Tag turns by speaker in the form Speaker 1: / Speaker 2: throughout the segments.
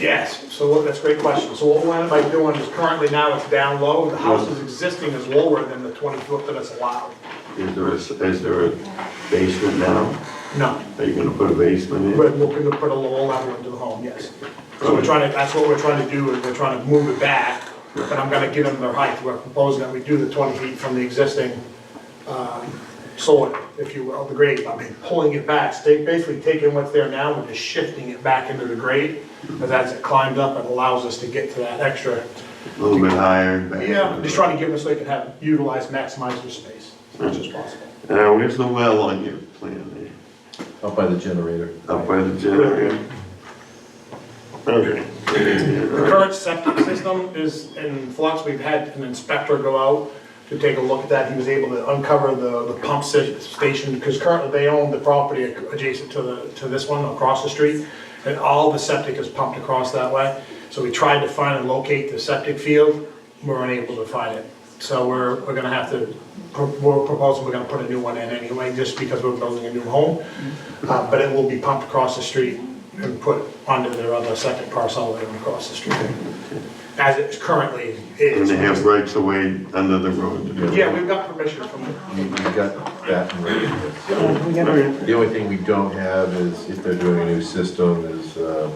Speaker 1: Yes, so what- that's a great question. So what we're by doing is currently now it's down low, the house is existing is lower than the 20 foot that is allowed.
Speaker 2: Is there a, is there a basement now?
Speaker 1: No,
Speaker 2: Are you gonna put a basement in?
Speaker 1: we're looking to put a lower level into the home, yes. So we're trying to, that's what we're trying to do, is we're trying to move it back, but I'm gonna give them their height. We're proposing that we do the 20 feet from the existing um, soil, if you will, the grade, I mean, pulling it back, stay, basically taking what's there now, and just shifting it back into the grade, because as it climbed up, it allows us to get to that extra
Speaker 2: A little bit higher? back?
Speaker 1: Yeah, just trying to give them so they can have, utilize, maximize their space as much as possible.
Speaker 2: Now, where's the well on your plan
Speaker 3: Up by the generator.
Speaker 2: there? Up by the generator? Okay.
Speaker 1: The current septic system is in flux, we've had an inspector go out to take a look at that, he was able to uncover the, the pump sta- station, because currently they own the property adjacent to the, to this one across the street, and all the septic is pumped across that way, so we tried to find and locate the septic field, we were unable to find it. So we're, we're gonna have to, we're proposing, we're gonna put a new one in anyway, just because we're building a new home, Uh, but it will be pumped across the street and put onto their other second parcel that are across the street. As it currently
Speaker 2: And
Speaker 1: is.
Speaker 2: they have rights of way under the road to do that?
Speaker 1: Yeah, we've got permission from them.
Speaker 3: You- You've got that and ready for this. The only thing we don't have is, if they're doing a new system, is uh,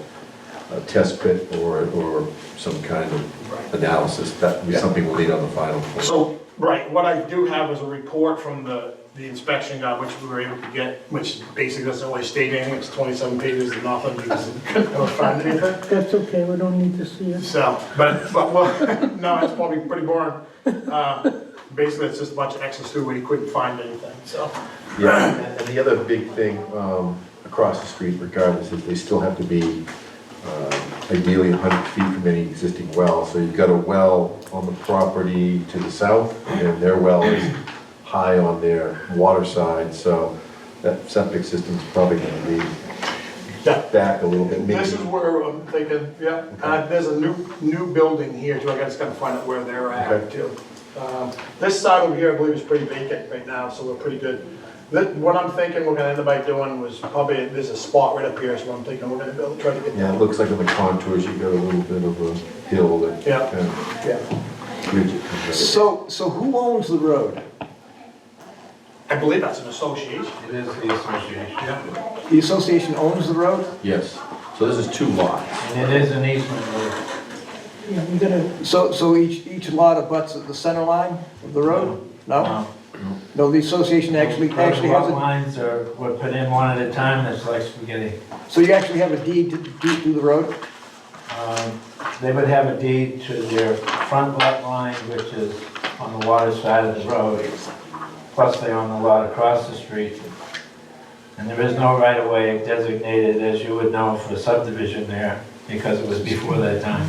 Speaker 3: a test pit or, or some kind of analysis. That would be something we'll need on the final. form.
Speaker 1: So, right, what I do have is a report from the, the inspection guy, which we were able to get, which basically doesn't really state anything, it's twenty-seven pages and nothing, because we couldn't really find anything.
Speaker 4: That's okay, we don't need to see it.
Speaker 1: So, but, but, well, no, it's probably pretty boring. Uh, Basically, it's just a bunch of X's through where you couldn't find anything, so.
Speaker 3: Yeah, and- and the other big thing um, across the street regardless is they still have to be um, ideally 100 feet from any existing well. So you've got a well on the property to the south, and their well is high on their water side, so that septic system's probably going to be
Speaker 1: yeah.
Speaker 3: back a little bit,
Speaker 1: This
Speaker 3: maybe.
Speaker 1: is where I'm thinking, yeah, uh, there's a new, new building here too, I gotta just gotta find out where they're at
Speaker 3: Okay.
Speaker 1: too. Um, This side over here, I believe, is pretty vacant right now, so we're pretty good. Th- What I'm thinking we're gonna end up by doing was probably, there's a spot right up here, so I'm thinking we're gonna build, try to get
Speaker 3: Yeah, it
Speaker 1: that.
Speaker 3: looks like on the contours, you've got a little bit of a hill that.
Speaker 1: Yeah.
Speaker 3: kind of
Speaker 1: Yeah.
Speaker 3: bridge it comes
Speaker 5: So, so who owns the road?
Speaker 1: I believe that's an association.
Speaker 6: It is the association,
Speaker 5: The association owns the road?
Speaker 3: over. Yes, so this is two lots.
Speaker 6: and it is an easement road.
Speaker 4: Yeah, we gotta,
Speaker 5: So, so each, each lot abuts at the center line of the road? No? No, the association actually, actually has
Speaker 6: Lot
Speaker 5: a,
Speaker 6: Um, Lines are, were put in one at a time, it's like spaghetti.
Speaker 5: so you actually have a deed to, to to the road?
Speaker 6: Um, They would have a deed to their front lot line, which is on the water side of the road, plus they own the lot across the street. And there is no right of way designated, as you would know, for subdivision there, because it was before that time.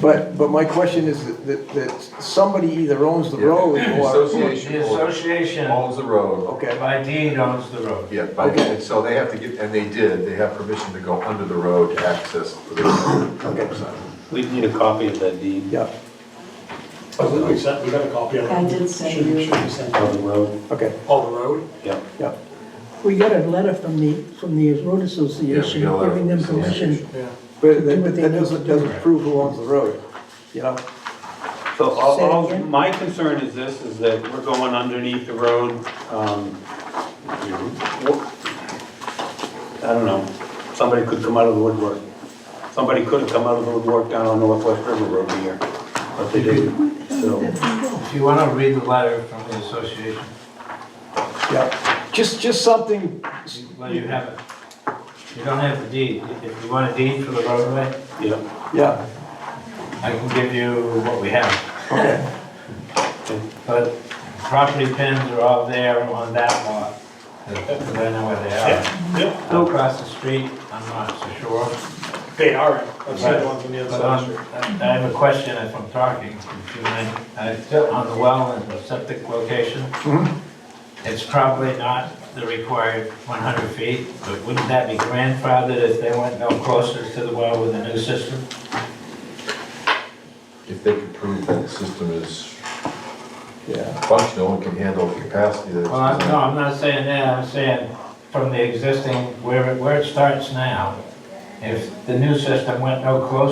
Speaker 5: But, but my question is that- that, that somebody either owns the road or,
Speaker 6: The association
Speaker 3: the road.
Speaker 5: okay,
Speaker 6: by deed owns the road.
Speaker 3: Yeah, by-
Speaker 5: Okay.
Speaker 3: and so they have to get, and they did, they have permission to go under the road to access the road.
Speaker 7: We need a copy of that deed
Speaker 5: yeah,
Speaker 1: I believe we sent, we got a copy of it.
Speaker 8: I did send
Speaker 1: Should-
Speaker 8: you.
Speaker 1: Should be sent
Speaker 7: of the road.
Speaker 5: okay,
Speaker 1: Oh, the road?
Speaker 7: Yep.
Speaker 5: yeah.
Speaker 4: we got a letter from the, from the road
Speaker 3: Yeah, we
Speaker 4: association
Speaker 3: got a letter
Speaker 4: giving them
Speaker 3: from the
Speaker 4: permission.
Speaker 1: Yeah.
Speaker 5: But that, but that doesn't, doesn't prove who owns the road, you know?
Speaker 7: So all,
Speaker 4: Say it
Speaker 7: all,
Speaker 4: again?
Speaker 7: my concern is this, is that we're going underneath the road, um, wh- I don't know, somebody could come out of the woodwork. Somebody could have come out of the woodwork down on Northwest River Road here, but they didn't, so.
Speaker 6: If you want to read the letter from the association,
Speaker 5: Yeah, just, just something,
Speaker 6: well, you have it. You don't have the deed. If you want a deed for the roadway,
Speaker 7: Yeah,
Speaker 5: yeah.
Speaker 6: I can give you what we have.
Speaker 5: Okay.
Speaker 6: But property pins are all there on that lot, because I know where they
Speaker 1: Yep,
Speaker 6: are. Across the street, I'm not so sure.
Speaker 1: they are, I've seen the ones on the other
Speaker 6: But
Speaker 1: side of the
Speaker 6: on-
Speaker 1: street.
Speaker 6: Um, I have a question if I'm talking. If you mind. I- On the well and the septic location, it's probably not the required 100 feet, but wouldn't that be grandfathered if they went no closer to the well with a new system?
Speaker 3: If they could prove that the system is
Speaker 5: Yeah,
Speaker 3: functional and can handle the capacity that it's
Speaker 6: Well, I'm- no,
Speaker 3: designed.
Speaker 6: I'm not saying that, I'm saying from the existing, where it, where it starts now, if the new system went no closer